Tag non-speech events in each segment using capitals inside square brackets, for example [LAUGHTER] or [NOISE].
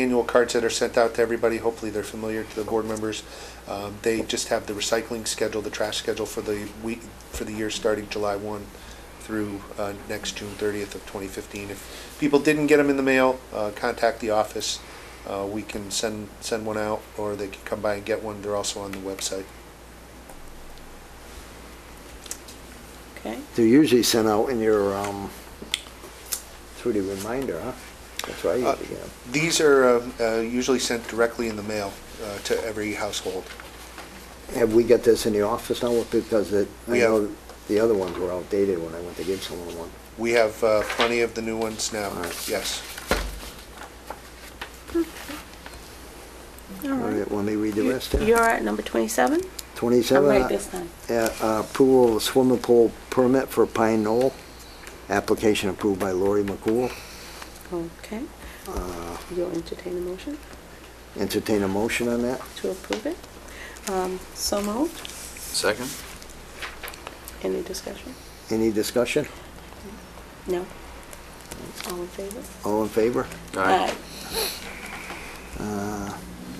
annual cards that are sent out to everybody. Hopefully, they're familiar to the board members. Um, They just have the recycling schedule, the trash schedule for the week, for the year starting July 1 through uh, next June 30th of 2015. If people didn't get them in the mail, uh, contact the office. Uh, We can send, send one out, or they can come by and get one. They're also on the website. Okay, They're usually sent out in your, um, through the reminder, huh? That's right. Uh, These are um, uh, usually sent directly in the mail uh, to every household. Have we got this in the office now? Because it, I We have- know the other ones were outdated when I went to give someone one. We have uh, plenty of the new ones now, All right. yes. all right. Want me to read the rest You- there? You're at number 27? I'm 27. right this time. uh, uh, Approval of swimming pool permit for Pine Knoll. Application approved by Lori McCool. Oh, Okay. You'll entertain a motion Entertain a motion on that? to approve it. Um, So moved. Second? Any discussion? Any discussion? No? All in favor? All in favor? Aye. Uh,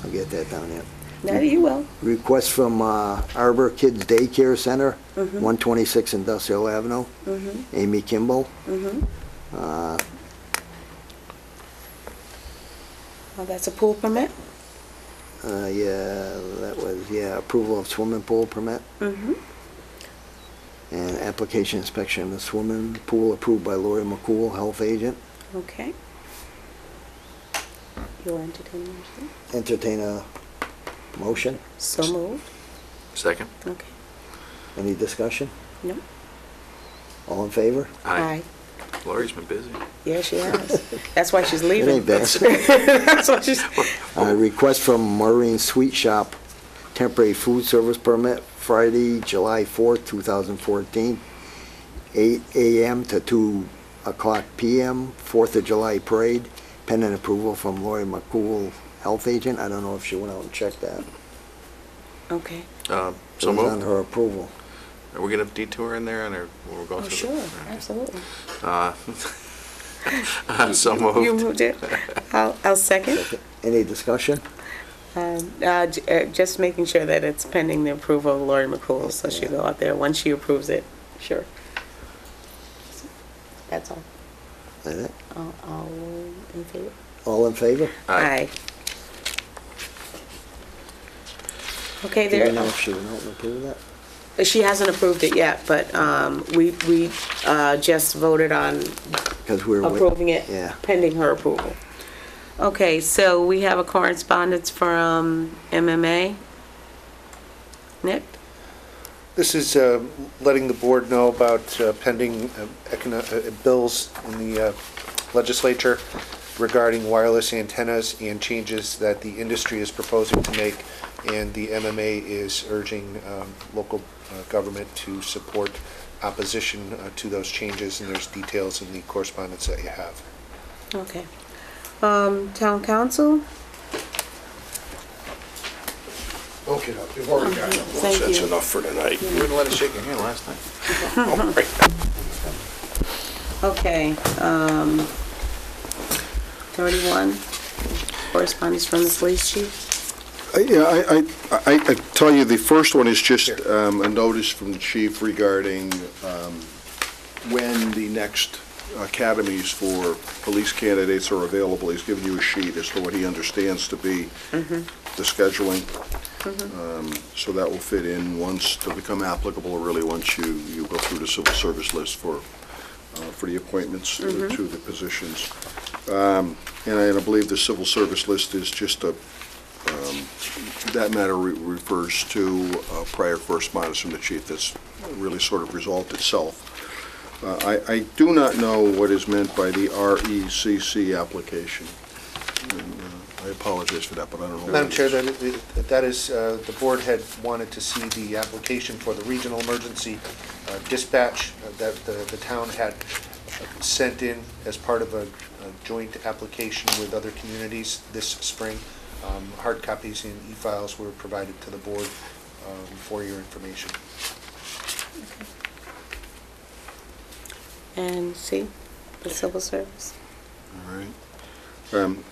I'll get that down there. Now you will. Request from uh, Arbor Kids Daycare Center, Mhm. 126 Industrial Avenue, Mm-hmm, Amy Kimball. mm-hmm. Uh, Oh, that's a pool permit? uh, Yeah, that was, yeah, approval of swimming pool permit Mm-hmm. and application inspection of the swimming pool approved by Lori McCool, health agent. Okay. You'll entertain a motion? Entertain a motion. So moved. Second? Okay. Any discussion? No? All in favor? Lori's been busy. Yeah, she has. That's why she's It ain't leaving. bad. [LAUGHS] That's why she's, Uh, Request from Maureen Sweet Shop, temporary food service permit, Friday, July 4th, 2014, 8 a.m. to 2 o'clock p.m., 4th of July parade, pending approval from Lori McCool, health agent. I don't know if she went out and checked that. okay. Um, It So was on moved. her approval. Are we going to detour in there and are, we're going Oh, through? sure, the- absolutely. Uh, [LAUGHS] So You moved. moved it. I'll, I'll second. Any discussion? Um, uh, j- uh, Just making sure that it's pending the approval of Lori McCool, so she'll go out there once she approves it. Sure. That's all. Is it? All- All in favor? All in favor? Aye. Okay, Do you know there, if she went out and approved that? she hasn't approved it yet, but um, we, we uh, just voted on 'Cause we were... wait- approving it Yeah. pending her approval. Okay, so we have a correspondence from MMA. Nick? This is uh, letting the board know about uh, pending uh, econo- uh, bills in the uh, legislature regarding wireless antennas and changes that the industry is proposing to make, and the MMA is urging um, local uh, government to support opposition uh, to those changes, and there's details in the correspondence that you have. Okay. Um, Town council? Okay, now, you've already got it. Thank That's you. enough for tonight. You wouldn't let us shake your hand last night. All right. Okay, um, 31, correspondence from the police chief. I- Yeah, I, I- I, I tell you, the first one is just um, a notice from the chief regarding um, when the next academies for police candidates are available. He's given you a sheet as to what he understands to be the scheduling. Um, So that will fit in once, to become applicable, or really, once you, you go through the civil service list for, uh, for the appointments to to the positions. Um, And I and I believe the civil service list is just a um, that matter re- refers to uh, prior correspondence from the chief that's really sort of resolved itself. Uh, I I do not know what is meant by the RECC application. And, uh, I apologize for that, but I don't know. what Madam it Chair, is. that that is, uh, the board had wanted to see the application for the regional emergency uh, dispatch that the the town had sent in as part of a a joint application with other communities this spring. Um, Hard copies and e-files were provided to the board um, for your information. And see, the civil service. All right. Um,